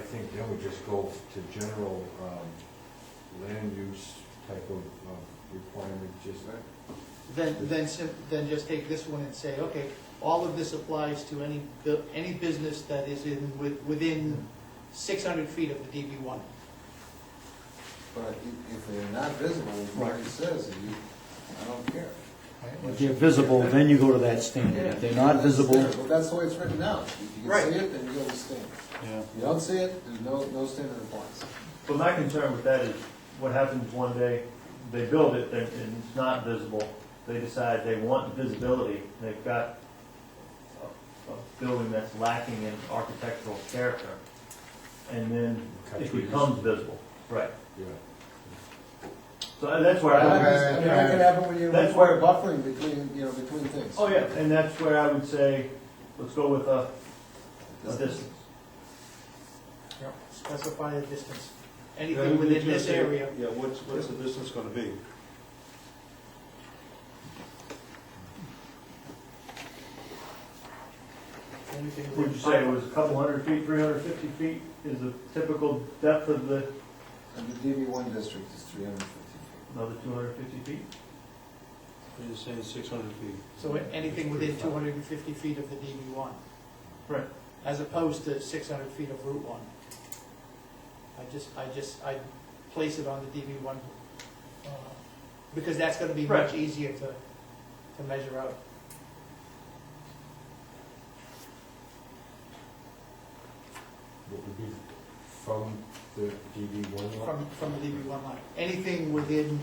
think then we just go to general, um, land use type of, of requirement, just that. Then, then, sim- then just take this one and say, okay, all of this applies to any, bu- any business that is in, with- within six hundred feet of the DB one. But if, if they're not visible, as Marty says, you, I don't care. If they're visible, then you go to that standard. If they're not visible, Well, that's the way it's written now. If you can Right. see it, then you understand. yeah. If you don't see it, there's no, no standard applies. But my concern with that is, what happens one day, they build it, they- and it's not visible, they decide they want visibility, they've got a- a building that's lacking in architectural character, and then Cut it trees. becomes visible. Right. Yeah. So that's where I I, mean, that can happen when you That's require buffering between, you know, between things. oh yeah, and that's where I would say, let's go with a, a distance. Specify the distance. Yeah, we Anything within just this say- area. Yeah, what's, what's the distance gonna be? anything within Would you say it was a couple hundred feet, three hundred fifty feet is the typical depth of the, And the DB one district is three hundred and fifty feet. another two hundred fifty feet? You're just saying six hundred feet. So anything within two hundred and fifty feet of the DB one. Right. As opposed to six hundred feet of Route one. I just, I just, I place it on the DB one, uh, because that's gonna be much Uh-huh. Right. easier to, to measure out. What would be from the DB one lot? From, from the DB one line, anything within,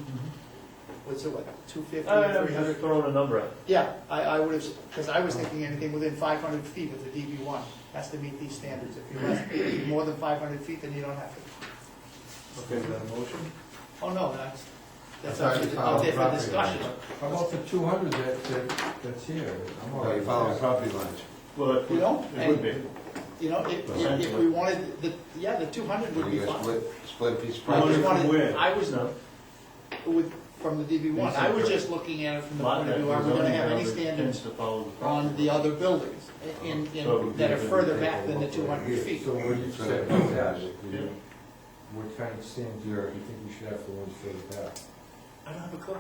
what's it, what, two fifty, Uh, I'm three hundred? Uh, just throwing a number out. Yeah, I, I would have, because I was thinking anything within five hundred feet of the DB one has to meet these standards. If you're less, if you're more than five hundred feet, then you don't have to. Okay, is that a motion? Oh, no, that's, that's I thought actually you out there for followed discussion. How about the two hundred that, that, that's here? I'm Oh, all right with that. property lines. Well, it You would- know, it would and, be. you know, if, if- if Essentially. we wanted, the, yeah, the two hundred would be fine. split a piece of I Well, just from wanted, where? I was, No. with, from the DB one, I was just looking at it from the point of view, are we gonna have any standards on the other buildings in, in, that are further back than the two hundred feet? So what you said about that, Yeah. what kind of stands do you think we should have for ones further back? I don't have a clue.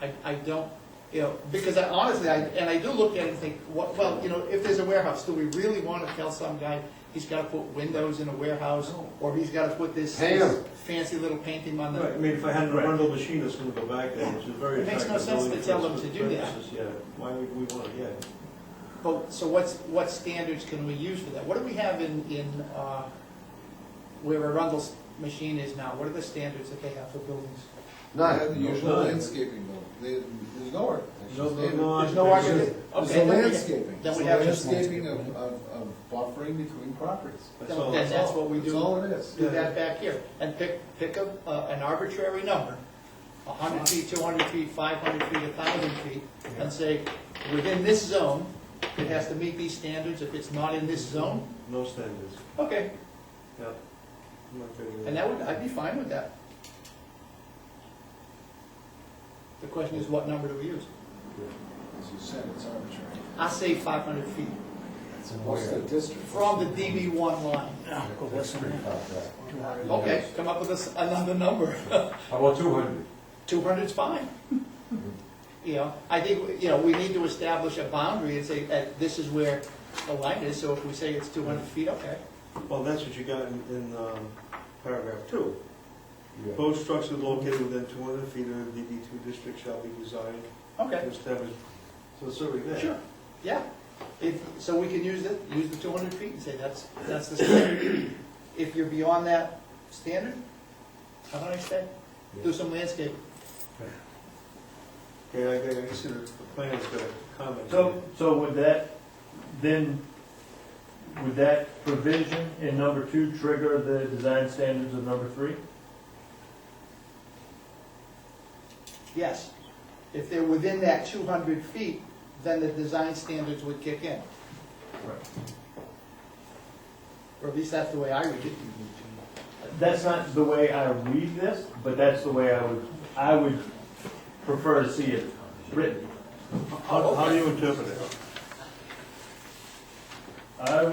I, I don't, you know, because I honestly, I, and I do look at it and think, what, well, you know, if there's a warehouse, do we really wanna tell some guy he's gotta put windows in a warehouse? Or he's gotta put this Pay him. this fancy little painting on I the, mean, if I had a Right. rental machine that's gonna go back there, which is very It makes attractive. no sense to building tell for them its to do that. purposes, Yeah, why would we want, it? yeah. but, so what's, what standards can we use for that? What do we have in, in, uh, where Arundel's machine is now? What are the standards that they have for buildings? None, the usual None. landscaping though, There- there's no art. No, no, no. There's no architect- argument, There's okay, a then we- landscaping, then it's we a have just landscaping of, of, of buffering between properties. That's all. then that's what we do. That's all it is. do that back here, and pick, pick a, a- an arbitrary number, a hundred feet, two hundred feet, five hundred feet, a thousand feet, and say, within this zone, it has to meet these standards, if it's not in this zone, No standards, okay, yeah. I'm not gonna do and that would, I'd be fine with that. The question is, what number do we use? As you said, it's arbitrary. I say five hundred feet, What's the district? from the DB one line. That's pretty far back. Okay, come up with a s another number. How about two hundred? Two hundred's fine. You know, I think, you know, we need to establish a boundary and say, that this is where the line is, so if we say it's two hundred feet, okay. Well, that's what you got in, in, um, paragraph two. Yeah. Proposed structure located within two hundred feet of the DB two district shall be designed Okay. to establish, so it's already there. Sure, yeah. If, so we can use it, use the two hundred feet and say that's, that's the standard. If you're beyond that standard, how about I say, do some landscape. Okay, I, I see the the plan's got a comment. So, so would that, then, would that provision in number two trigger the design standards of number three? Yes. If they're within that two hundred feet, then the design standards would kick in. Or at least that's the way I read it. That's not the way I read this, but that's the way I would, I would prefer to see it written. How, how do you interpret it?